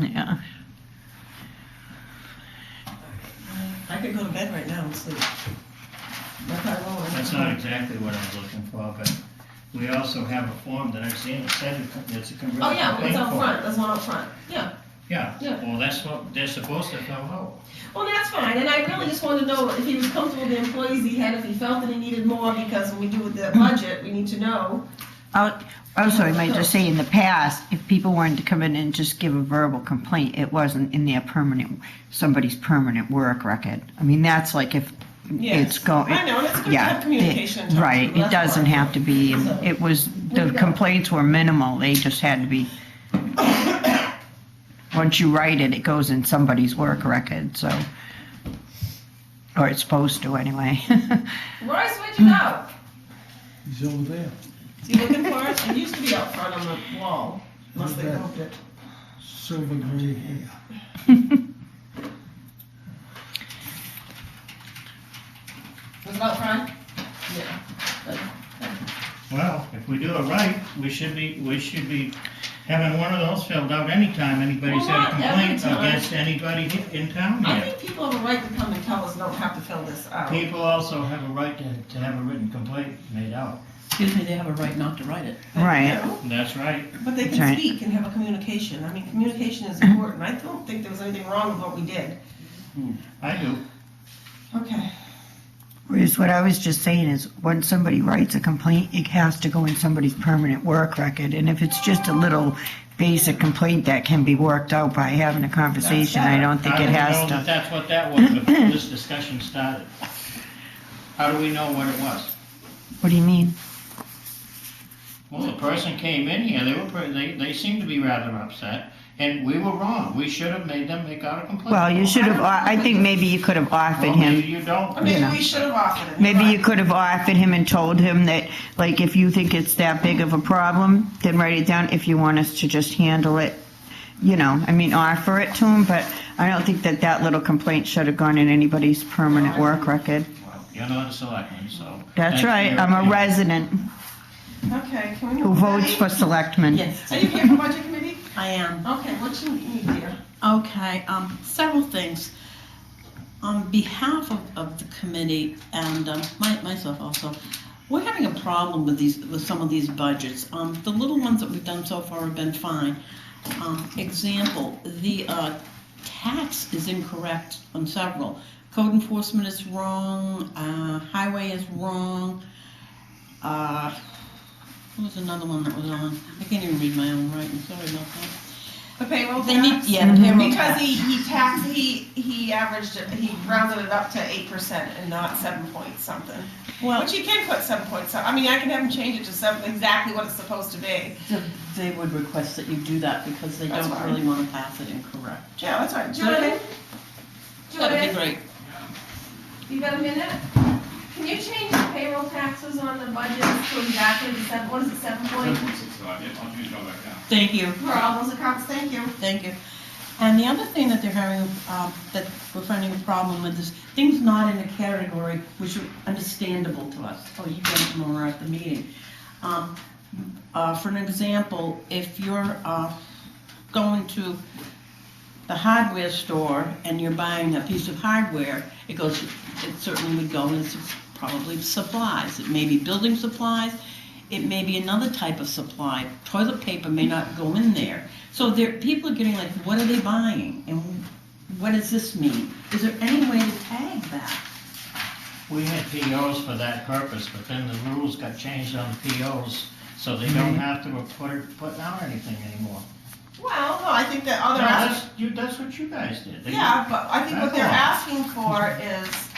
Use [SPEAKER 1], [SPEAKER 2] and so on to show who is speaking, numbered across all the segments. [SPEAKER 1] Yeah.
[SPEAKER 2] I could go to bed right now and sleep. If I will.
[SPEAKER 3] That's not exactly what I was looking for, but we also have a form that I've seen, it said it- it's a conversion.
[SPEAKER 2] Oh, yeah, well, it's
[SPEAKER 3] bank
[SPEAKER 2] out
[SPEAKER 3] form.
[SPEAKER 2] front, there's one out front, yeah.
[SPEAKER 3] Yeah,
[SPEAKER 2] Yeah.
[SPEAKER 3] well, that's what they're supposed to fill out.
[SPEAKER 2] Well, that's fine, and I really just wanted to know if he was comfortable with the employees he had, if he felt that he needed more, because when we do the budget, we need to know.
[SPEAKER 1] I'll- Also, I might oh, just say, in the past, if people wanted to come in and just give a verbal complaint, it wasn't in their permanent, somebody's permanent work record. I mean, that's like if it's going.
[SPEAKER 2] I know, and it's good to
[SPEAKER 1] yeah,
[SPEAKER 2] have communication.
[SPEAKER 1] it- Right, it doesn't have to be,
[SPEAKER 2] So-
[SPEAKER 1] it was,
[SPEAKER 2] There
[SPEAKER 1] the
[SPEAKER 2] you go.
[SPEAKER 1] complaints were minimal, they just had to be. Once you write it, it goes in somebody's work record, so, or it's supposed to anyway.
[SPEAKER 2] Royce, where'd you go?
[SPEAKER 4] He's over there.
[SPEAKER 2] Is he looking for us? It used to be out front on the wall, unless they moved it.
[SPEAKER 4] Silver gray hair.
[SPEAKER 2] Was it out front? Yeah.
[SPEAKER 3] Well, if we do it right, we should be, we should be having one of those filled out anytime anybody's
[SPEAKER 2] Well,
[SPEAKER 3] had
[SPEAKER 2] not
[SPEAKER 3] a
[SPEAKER 2] every
[SPEAKER 3] complaint
[SPEAKER 2] time.
[SPEAKER 3] against anybody he- in town
[SPEAKER 2] I
[SPEAKER 3] here.
[SPEAKER 2] think people have a right to come and tell us, don't have to fill this out.
[SPEAKER 3] People also have a right to, to have a written complaint made out.
[SPEAKER 5] Excuse me, they have a right not to write it.
[SPEAKER 1] Right,
[SPEAKER 2] No,
[SPEAKER 3] That's right.
[SPEAKER 2] But they
[SPEAKER 1] Right.
[SPEAKER 2] can speak and have a communication. I mean, communication is important. I don't think there was anything wrong with what we did.
[SPEAKER 3] I do.
[SPEAKER 2] Okay.
[SPEAKER 1] Whereas what I was just saying is, when somebody writes a complaint, it has to go in somebody's permanent work record, and if it's just a little basic complaint that can be worked out by having a conversation, I don't think
[SPEAKER 3] How
[SPEAKER 1] it
[SPEAKER 3] do we
[SPEAKER 1] has
[SPEAKER 3] know that
[SPEAKER 1] to.
[SPEAKER 3] That's what that was before this discussion started. How do we know what it was?
[SPEAKER 1] What do you mean?
[SPEAKER 3] Well, the person came in here, they were, pre- they, they seemed to be rather upset, and we were wrong. We should have made them make out a complaint.
[SPEAKER 1] Well, you should have, I think maybe you could have offered
[SPEAKER 3] Well,
[SPEAKER 1] him.
[SPEAKER 3] maybe you don't.
[SPEAKER 2] Or maybe
[SPEAKER 1] know.
[SPEAKER 2] we should have offered it.
[SPEAKER 1] Maybe you
[SPEAKER 2] Right.
[SPEAKER 1] could have offered him and told him that, like, if you think it's that big of a problem, then write it down. If you want us to just handle it, you know, I mean, offer it to him, but I don't think that that little complaint should have gone in anybody's permanent work record.
[SPEAKER 3] Well, You're not a selectman, so.
[SPEAKER 1] That's right, I'm a
[SPEAKER 3] resident.
[SPEAKER 1] resident
[SPEAKER 2] Okay, can we?
[SPEAKER 1] who votes for selectmen.
[SPEAKER 5] Yes.
[SPEAKER 2] Are you here for budget committee?
[SPEAKER 5] I am.
[SPEAKER 2] Okay, what you need here?
[SPEAKER 5] Okay, um, several things. On behalf of, of the committee and, um, my, myself also, we're having a problem with these, with some of these budgets. Um, the little ones that we've done so far have been fine. Um, example, the, uh, tax is incorrect on several. Code enforcement is wrong, uh, highway is wrong, uh, what was another one that was on? I can't even read my own writing, sorry about that.
[SPEAKER 2] The payroll
[SPEAKER 5] They need,
[SPEAKER 2] tax?
[SPEAKER 5] yeah, the payroll
[SPEAKER 2] Because
[SPEAKER 5] tax.
[SPEAKER 2] he, he taxed, he, he averaged, it- he rounded it up to eight percent and not seven point something.
[SPEAKER 5] Well,
[SPEAKER 2] But you can put seven point some, I mean, I can have him change it to seven, exactly what it's supposed to be.
[SPEAKER 5] th- they would request that you do that because they
[SPEAKER 2] That's
[SPEAKER 5] don't
[SPEAKER 2] fine.
[SPEAKER 5] really want to pass it incorrect.
[SPEAKER 2] Yeah, that's right. Jordan?
[SPEAKER 5] That'd be
[SPEAKER 6] Jordan,
[SPEAKER 5] great.
[SPEAKER 6] you got a minute? Can you change the payroll taxes on the budget to exactly the seven, what is it, seven point?
[SPEAKER 7] I'll change it all back down.
[SPEAKER 5] Thank you,
[SPEAKER 2] For all those accounts, thank you.
[SPEAKER 5] thank you. And the other thing that they're having, um, that we're finding a problem with is things not in a category which are understandable to us. Oh, you guys them over at the meeting. Um, uh, For an example, if you're uh, going to the hardware store and you're buying a piece of hardware, it goes, it certainly would go into probably supplies. It may be building supplies, it may be another type of supply. Toilet paper may not go in there. So there, people are getting like, what are they buying? And what does this mean? Is there any way to tag that?
[SPEAKER 3] We had POs for that purpose, but then the rules got changed on the POs, so they
[SPEAKER 1] Mm-hmm.
[SPEAKER 3] don't have to report, put out anything anymore.
[SPEAKER 2] Well, no, I think that
[SPEAKER 3] No,
[SPEAKER 2] other aspect.
[SPEAKER 3] that's, you, that's what you guys did. They-
[SPEAKER 2] Oh, Yeah, but I think what they're
[SPEAKER 3] That's
[SPEAKER 2] asking for is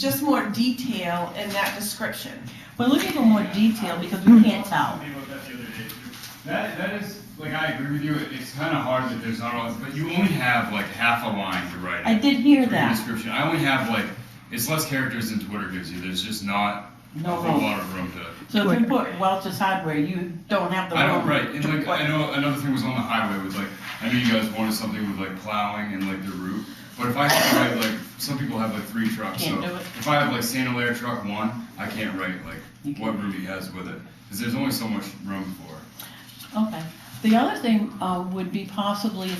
[SPEAKER 2] just more detail in that description.
[SPEAKER 5] We're looking for more detail because we can't tell.
[SPEAKER 7] Talking about that the other day. That, that is, like, I agree with you, it- it's kind of hard that there's not all, but you only have like half a line to write.
[SPEAKER 5] I did hear
[SPEAKER 7] for your
[SPEAKER 5] that.
[SPEAKER 7] Description, I only have like, it's less characters than Twitter gives you, there's just not a
[SPEAKER 5] No
[SPEAKER 7] whole
[SPEAKER 5] room.
[SPEAKER 7] lot of room to.
[SPEAKER 5] So if you put Welch's Hardware, you don't have the room.
[SPEAKER 7] I don't, right, and
[SPEAKER 5] to
[SPEAKER 7] like,
[SPEAKER 5] put-
[SPEAKER 7] I know, another thing was on the highway was like, I know you guys wanted something with like plowing and like the route, but if I have to write like, some people have like three trucks, so.
[SPEAKER 5] Can't do it.
[SPEAKER 7] If I have like Sandalair truck one, I can't write
[SPEAKER 5] You
[SPEAKER 7] like
[SPEAKER 5] can-
[SPEAKER 7] what route he has with it, because there's only so much room for it.
[SPEAKER 5] Okay. The other thing uh, would be possibly